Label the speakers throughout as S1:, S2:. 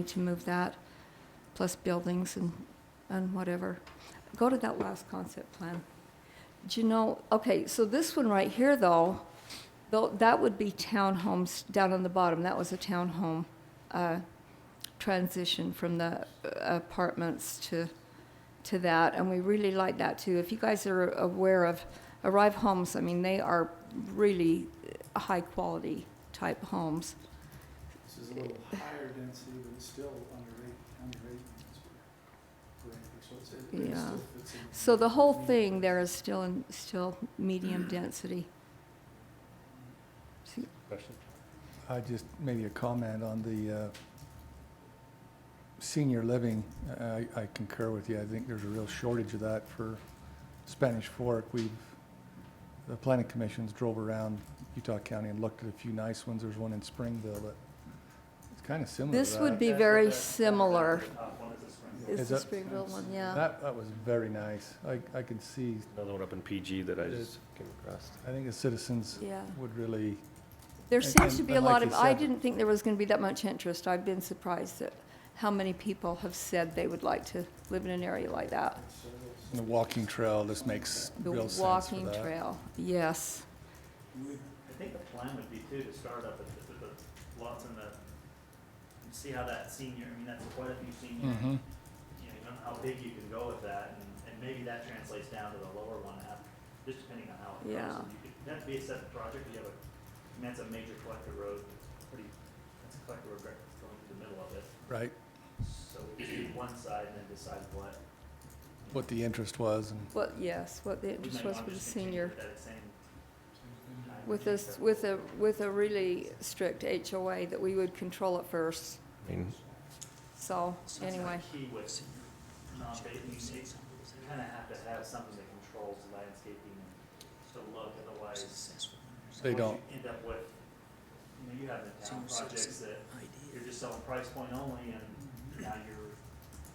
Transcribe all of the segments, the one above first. S1: need to move that, plus buildings and, and whatever. Go to that last concept plan. Do you know, okay, so this one right here, though, though, that would be townhomes down on the bottom. That was a townhome, uh, transition from the uh, apartments to, to that, and we really like that too. If you guys are aware of Arrive Homes, I mean, they are really high-quality type homes.
S2: This is a little higher density, but it's still under eight, under eight units per, per acre, so it's, it- it
S1: Yeah.
S2: still fits in.
S1: So the whole thing there is still, in still medium density. See,
S3: Question?
S4: I just, maybe a comment on the uh, senior living. I I concur with you. I think there's a real shortage of that for Spanish Fork. We've, the planning commissions drove around Utah County and looked at a few nice ones. There's one in Springville that it's kind of similar to
S1: This
S4: that.
S1: would be very similar. Is
S4: Is
S1: the
S4: it-
S1: Springville one, yeah.
S4: That, that was very nice. I, I could see,
S3: Another one up in PG that I
S4: It
S3: just came across.
S4: I think the citizens
S1: Yeah.
S4: would really,
S1: There
S4: And-
S1: seems
S4: and-
S1: to be a
S4: and
S1: lot
S4: like
S1: of,
S4: you
S1: I
S4: said-
S1: didn't think there was going to be that much interest. I've been surprised at how many people have said they would like to live in an area like that.
S4: the walking trail, this makes
S1: The
S4: real sense for
S1: walking
S4: that.
S1: trail, yes.
S5: I think the plan would be too, to start up with the, with the lots in the, and see how that senior, I mean, that's quite a few senior,
S4: Mhm.
S5: you know, you don't know how big you can go with that, and, and maybe that translates down to the lower one half, just depending on how it goes.
S1: Yeah.
S5: And You could, that'd be a separate project, you have a, I mean, that's a major collector road, it's pretty, that's a collector road, that's going through the middle of it.
S4: Right,
S5: So we just do one side and then decide what.
S4: what the interest was and.
S1: What, yes, what the
S5: we
S1: interest
S5: might
S1: was
S5: want
S1: for the
S5: to just
S1: senior,
S5: continue with that same time
S1: with a,
S5: frame,
S1: s-
S5: but-
S1: with a, with a really strict HOA that we would control at first.
S3: I mean,
S1: So,
S5: That's
S1: anyway,
S5: the Key with non-bathing, you kind of have to have something that controls the landscaping and the look, otherwise.
S4: They
S5: once
S4: don't.
S5: you End up with, you know, you have the town projects that you're just selling price point only and now you're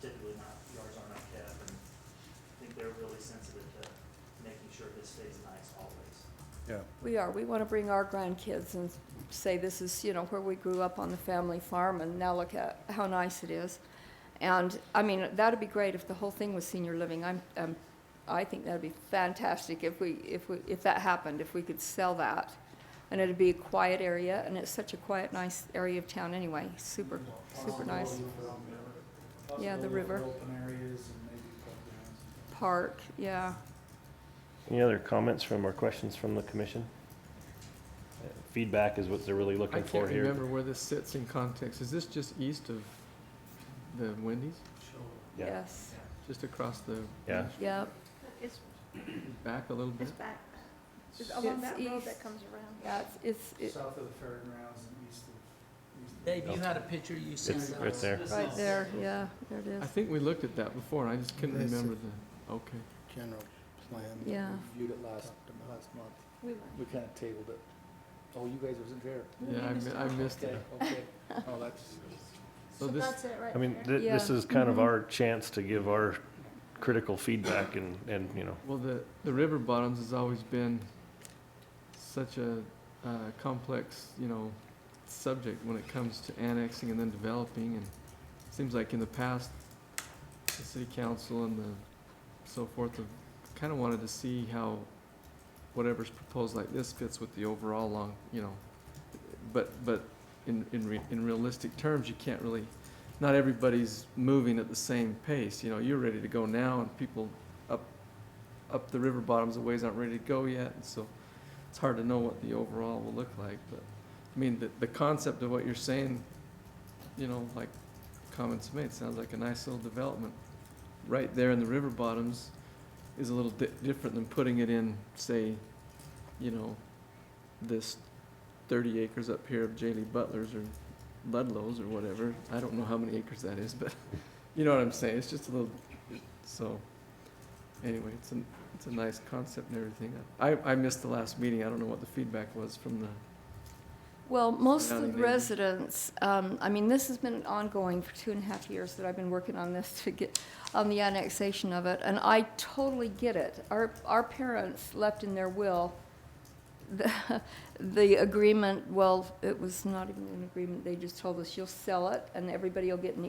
S5: typically not, yards aren't up kept. And I think they're really sensitive to making sure this stays nice always.
S4: Yeah,
S1: we are, we want to bring our grandkids and say this is, you know, where we grew up on the family farm and now look at how nice it is. And, I mean, that'd be great if the whole thing was senior living. I'm, um, I think that'd be fantastic if we, if we, if that happened, if we could sell that. And it'd be a quiet area and it's such a quiet, nice area of town anyway, super, super nice. Yeah, the
S2: Possibility of
S1: river.
S2: Open areas and maybe playgrounds.
S1: Park, yeah.
S3: Any other comments from or questions from the commission? Uh, Feedback is what they're really
S6: I
S3: looking for
S6: can't
S3: here.
S6: remember where this sits in context. Is this just east of the Wendy's?
S3: Yeah.
S1: Yes,
S6: Just across the,
S3: Yeah,
S1: yep,
S7: It's,
S6: back a little bit?
S7: it's back, it's
S1: It's
S7: along that road
S1: east.
S7: that comes around.
S1: yeah, it's, it's,
S2: South of the fairgrounds and east of, east of.
S8: Dave, you had a picture you sent
S3: it's
S8: us.
S3: right there.
S1: it- right there, yeah, there it is.
S6: I think we looked at that before and I just couldn't
S8: That's a-
S6: remember the, okay.
S8: General plan.
S1: Yeah.
S4: reviewed it last, last month.
S7: We were.
S4: We kind of tabled it. Oh, you guys wasn't there.
S6: Yeah, I mi- I missed it.
S4: okay. Oh, that's,
S6: So
S7: So
S6: this-
S7: that's it right
S3: I mean,
S7: there.
S3: thi- this
S1: Yeah.
S3: is kind of
S1: Mhm.
S3: our chance to give our critical feedback and, and, you know,
S6: Well, the, the river bottoms has always been such a, uh complex, you know, subject when it comes to annexing and then developing. And it seems like in the past, the city council and the so forth have kind of wanted to see how whatever's proposed like this fits with the overall long, you know. But, but in, in, re- in realistic terms, you can't really, not everybody's moving at the same pace. You know, you're ready to go now and people up the river bottoms, the waves aren't ready to go yet, and so it's hard to know what the overall will look like, but, I mean, the, the concept of what you're saying, you know, like comments made, sounds like a nice little development. Right there in the river bottoms is a little di- different than putting it in, say, you know, this thirty acres up here of J. Lee Butler's or Ludlow's or whatever, I don't know how many acres that is, but, you know what I'm saying, it's just a little, so, anyway, it's an, it's a nice concept and everything. I, I missed the last meeting. I don't know what the feedback was from the,
S1: Well, most of the
S6: Surrounding neighbor.
S1: residents, um, I mean, this has been ongoing for two and a half years that I've been working on this to get, on the annexation of it, and I totally get it. Our, our parents left in their will the- the agreement, well, it was not even an agreement, they just told us, you'll sell it, and everybody will get an